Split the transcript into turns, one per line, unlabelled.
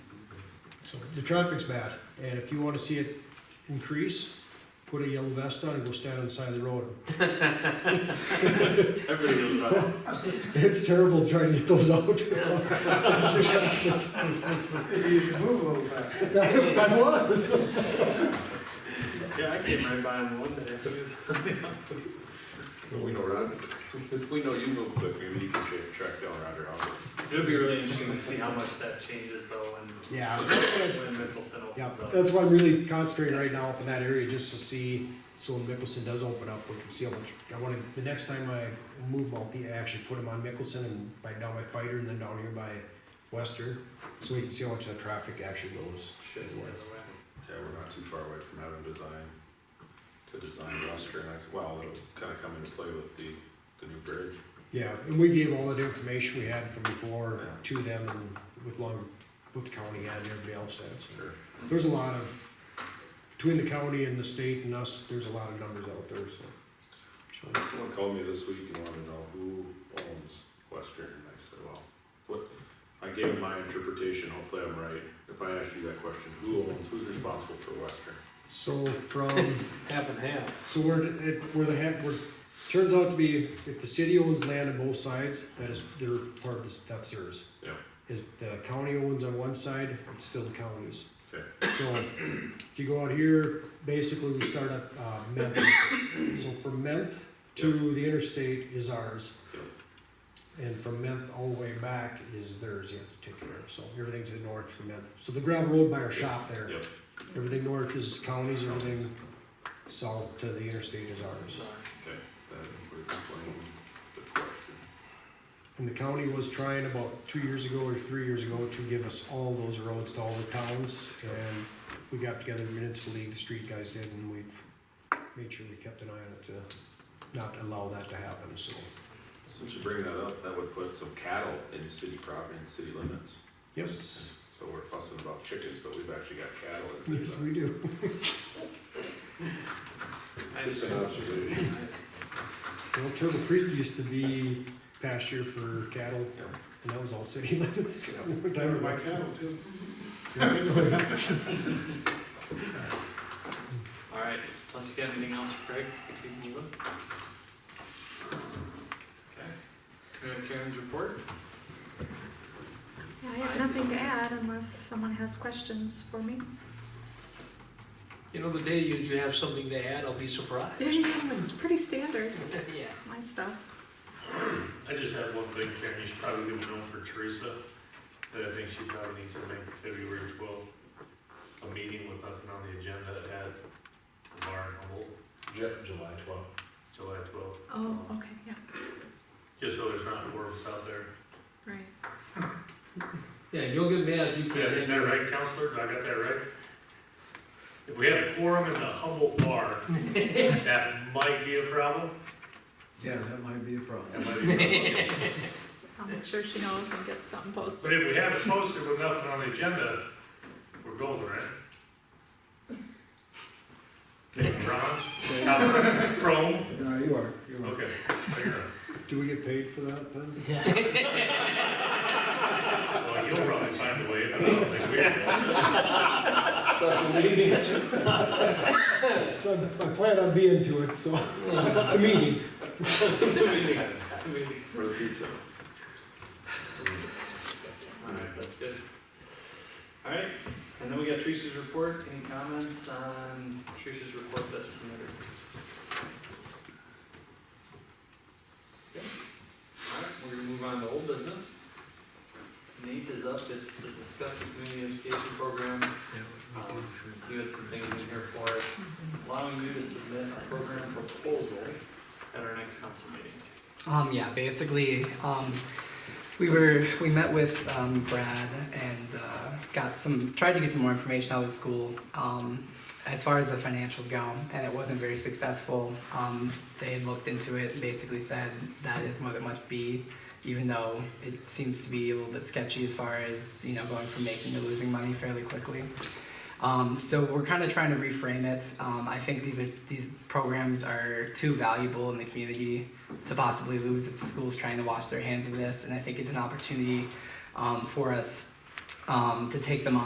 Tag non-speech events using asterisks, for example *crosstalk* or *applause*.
So the traffic's bad, and if you wanna see it increase, put a yellow vest on and go stand on the side of the road.
Everybody knows that.
*laughs* It's terrible trying to get those out.
Maybe you should move a little bit.
I was.
Yeah, I came right by him one day.
We know Roger. We know you move quick, maybe you can check- track down Roger Albert.
It'll be really interesting to see how much that changes though when,
Yeah,
when Mickelson
yeah,
opens up.
that's why I'm really concentrating right now up in that area, just to see, so when Mickelson does open up, we can see how much. I wanna, the next time I move, I'll be, I actually put him on Mickelson and by down by Fighter and then down here by Western, so we can see how much that traffic actually goes.
Shifts the other
Yeah, we're not too far away from having design, to design Western, I- well, it'll kinda come into play with the, the new bridge.
Yeah, and we gave all that information we had from before to them and with long, with the county and everybody else had, so.
Sure.
There's a lot of, between the county and the state and us, there's a lot of numbers out there, so. so.
Someone called me this week and wanted to know who owns Western, and I said, well, what, I gave him my interpretation, hopefully I'm right. If I asked you that question, who owns, who's responsible for Western?
So from,
half and half.
so we're, it, we're the head, we're, turns out to be, if the city owns land on both sides, that is their part, of the- that's theirs.
Yeah.
If the county owns on one side, it's still the county's.
Okay.
So if you go out here, basically we start at, uh, Ment. So from Ment to the interstate is ours.
Yep.
And from Ment all the way back is theirs in particular, so everything to the north from Ment. So the gravel road by our shop there.
Yep.
Everything north is counties, everything south to the interstate is ours.
way.
Okay, that would explain the question.
And the county was trying about two years ago or three years ago to give us all those roads to all the towns. And we got together, municipal league, the street guys did, and we made sure we kept an eye on it to not allow that to happen, so.
Since you bring that up, that would put some cattle in city property and city limits.
Yes,
So we're fussing about chickens, but we've actually got cattle in city
yes,
limits.
we do.
Just an observation.
Well, Turtle Creek used to be pasture for cattle, and that was all city *laughs* limits.
They were my cattle too.
Alright, unless you got anything else, Craig, we can move on. Okay. We have Karen's report?
I have nothing to add unless someone has questions for me.
You know, the day you, you have something to add, I'll be
*laughs*
surprised.
It's pretty standard,
Yeah.
my stuff.
I just have one thing, Karen, you should probably give a note for Teresa, that I think she probably needs to make February twelfth, a meeting with nothing on the agenda at the bar in Humboldt,
July twelfth.
July twelfth.
Oh, okay, yeah,
Just so there's not worms out there.
right.
Yeah, you'll get mad if you
Yeah, is that
can't.
right, counselor? Did I got that right? If we had a quorum in the Humboldt bar, that might be a problem.
Yeah, that might be a problem.
That might be a problem.
I'll make sure she knows and get something
But
posted.
if we have it posted with nothing on the agenda, we're golden, right? Maybe *laughs* bronze, copper, chrome,
No, you are, you are.
okay. fair enough.
Do we get paid for that then?
Well, you'll probably find a way, but I don't think we will.
*laughs* So I'm- I plan on being to it, so, *laughs* the meeting.
For the pizza.
Alright, that's good. Alright, and then we got Teresa's report, any comments on Teresa's report that's submitted? Okay. Alright, we're gonna move on to old business. Nate is up, it's the discuss the community education program, um, you had some things in here for us, allowing you to submit a program proposal at our next council meeting.
Um, yeah, basically, um, we were, we met with, um, Brad and, uh, got some, tried to get some more information out of the school, um, as far as the financials go, and it wasn't very successful. Um, they had looked into it, and basically said that is what it must be, even though it seems to be a little bit sketchy as far as, you know, going from making to losing money fairly quickly. Um, so we're kind of trying to reframe it. Um, I think these are, these programs are too valuable in the community to possibly lose if the school's trying to wash their hands of this. And I think it's an opportunity um, for us um, to take them on.